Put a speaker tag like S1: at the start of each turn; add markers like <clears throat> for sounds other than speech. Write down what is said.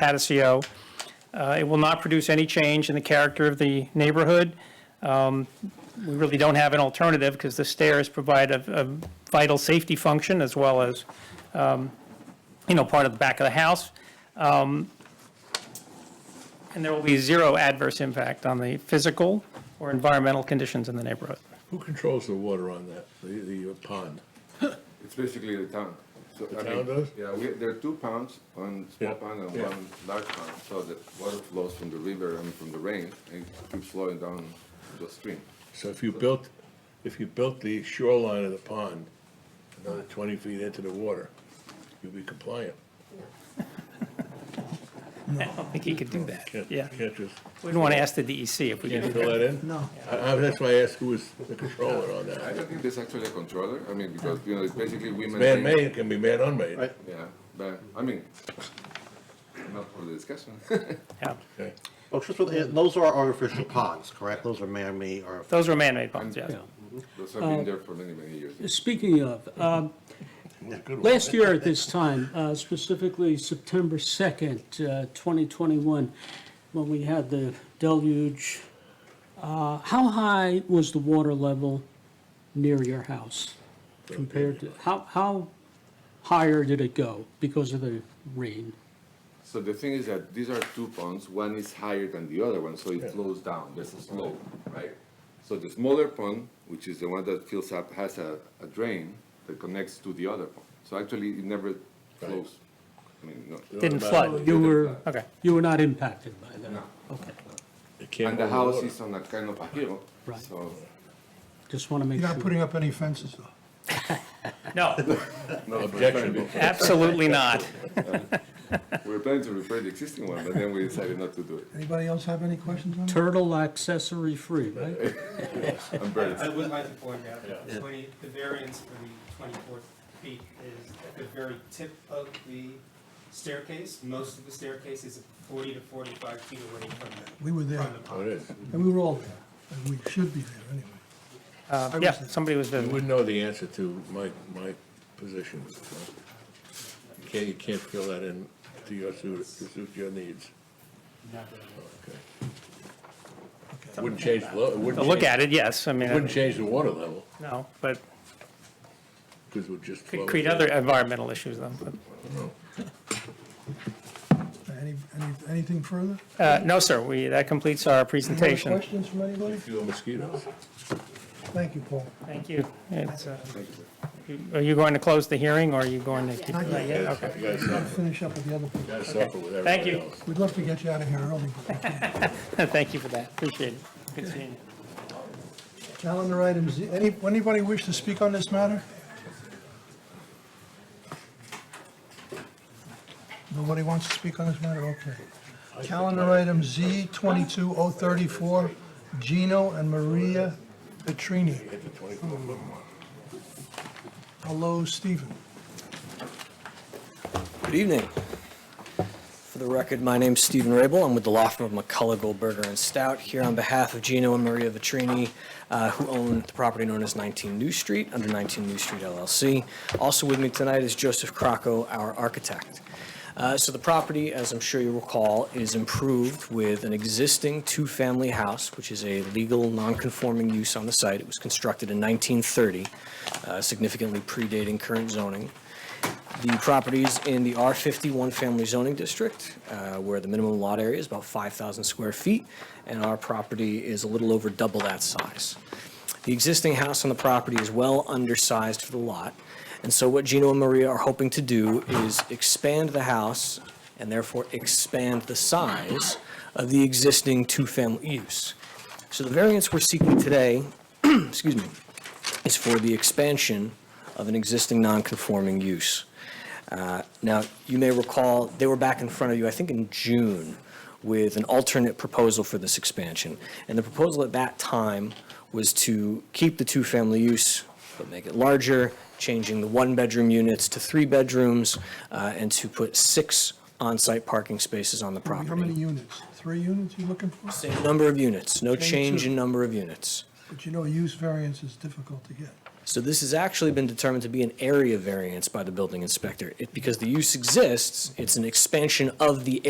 S1: Patio. E Uh, It will not produce any change in the character of the neighborhood. Um, We really don't have an alternative because the stairs provide a a vital safety function as well as, um, you know, part of the back of the house. Um, And there will be zero adverse impact on the physical or environmental conditions in the neighborhood.
S2: Who controls the water on that, the, the uh, pond?
S3: It's basically the town. So, I
S2: town
S3: mean,
S2: does?
S3: Yeah, we, there are two ponds, one small
S2: Yeah,
S3: pond and
S2: yeah.
S3: one large pond, so the water flows from the river and from the rain and keeps flowing down the stream.
S2: So if you built, if you built the shoreline of the pond another twenty feet into the water, you'd be compliant.
S1: I don't think he could do that.
S2: Can't-
S1: Yeah.
S2: Can't just,
S1: We'd want to ask the DEC if we could
S2: can't
S1: do
S2: fill
S1: that.
S2: that in? No. I, I, that's why I asked who was the controller on
S3: I
S2: that.
S3: don't think there's actually a controller, I mean, because, you know, it's basically we maintain.
S2: Man-made, it can be man-unmade.
S4: Right.
S3: Yeah, but, I mean, <laughs> not for the discussion. <laughs>
S1: Yeah.
S2: Okay.
S4: Oh, just with, and those are artificial ponds, correct? Those are man-made or,
S1: Those were man-made ponds, yes.
S3: Those have been there for many, many years.
S5: Speaking of, um, last year at this time, uh, specifically September 2nd, uh, 2021, when we had the deluge, uh, how high was the water level near your house compared to, how, how higher did it go because of the rain?
S3: So the thing is that these are two ponds, one is higher than the other one, so it flows down, there's a slope, right? So the smaller pond, which is the one that fills up, has a, a drain that connects to the other pond. So actually, it never flows. I mean, no.
S1: Didn't flood.
S5: You were,
S1: Okay.
S5: you were not impacted by that? Okay,
S2: It can't
S3: And the
S2: hold
S3: house
S2: water.
S3: is on a kind of a hill,
S5: Right.
S3: so,
S5: just want to make
S6: You're not
S5: sure.
S6: putting up any fences, though.
S1: No,
S3: no, we're planning,
S2: Objectionable.
S1: absolutely not.
S3: to- we were planning to repair the existing one, but then we decided not to do it.
S6: Anybody else have any questions on that?
S5: Turtle accessory free, right?
S3: And
S7: <laughs>
S3: birds.
S7: I would like to point out, that the twenty, the variance for the twenty-four feet is at the very tip of the staircase. Most of the staircase is forty to forty-five feet away from the.
S6: We were there,
S7: from the
S2: Oh,
S7: pond.
S2: it is.
S6: and we were all there, and we should be there anyway.
S1: Uh, Yeah, somebody was
S2: You
S1: visiting.
S2: wouldn't know the answer to my, my position. so You can't, you can't fill that in to your suit, to suit your needs. Okay. Wouldn't change, the lo- it
S1: To
S2: wouldn't.
S1: look
S2: change-
S1: at it, yes, I
S2: It wouldn't
S1: mean,
S2: change the water level,
S1: no, but
S2: because it would just flow.
S1: could create other environmental issues then. but-
S6: Any, any, anything further?
S1: uh, No, sir, we, that completes our
S6: Any
S1: presentation.
S6: questions from anybody?
S2: Few mosquitoes.
S6: Thank you, Paul.
S1: Thank you. It's, uh, you- Are you going to close the hearing, or are you going to? keep-
S6: Not yet.
S1: Not yet? Okay. <laughs>
S2: You guys
S6: We've got
S2: suffer,
S6: to finish up with the other
S2: you
S6: people.
S2: guys suffer with everybody else.
S1: Thank you.
S6: We'd love to get you out of here early, but we can't.
S1: Thank you for that, appreciate it. Good seeing you.
S6: calendar items, any, anybody wish to speak on this matter? Nobody wants to speak on this matter, okay. Calendar item Z twenty-two oh thirty-four, Gino and Maria Petrini. Hello, Stephen.
S8: Good evening. For the record, my name's Stephen Rabel. I'm with the law firm of McCullough Goldberger and Stout here on behalf of Gino and Maria Vitrini, uh, who own the property known as 19 New Street under 19 New Street LLC. Also with me tonight is Joseph Crocco, our architect. Uh, So the property, as I'm sure you recall, is improved with an existing two-family house, which is a legal, non-conforming use on the site. It was constructed in 1930, uh, significantly predating current zoning. The property is in the R51 Family Zoning District, uh, where the minimum lot area is about 5,000 square feet, and our property is a little over double that size. The existing house on the property is well undersized for the lot, and so what Gino and Maria are hoping to do is expand the house and therefore expand the size of the existing two-family use. So the variance we're seeking today, <clears throat> excuse me, is for the expansion of an existing non-conforming use. Uh, Now, you may recall, they were back in front of you, I think in June, with an alternate proposal for this expansion. And the proposal at that time was to keep the two-family use, but make it larger, changing the one-bedroom units to three bedrooms, uh, and to put six on-site parking spaces on the property.
S6: How many units? Three units you looking for?
S8: Same number of units, no
S6: Change
S8: change
S6: to-
S8: in number of units.
S6: But you know, use variance is difficult to get.
S8: So this has actually been determined to be an area variance by the building inspector. It- Because the use exists, it's an expansion of the area.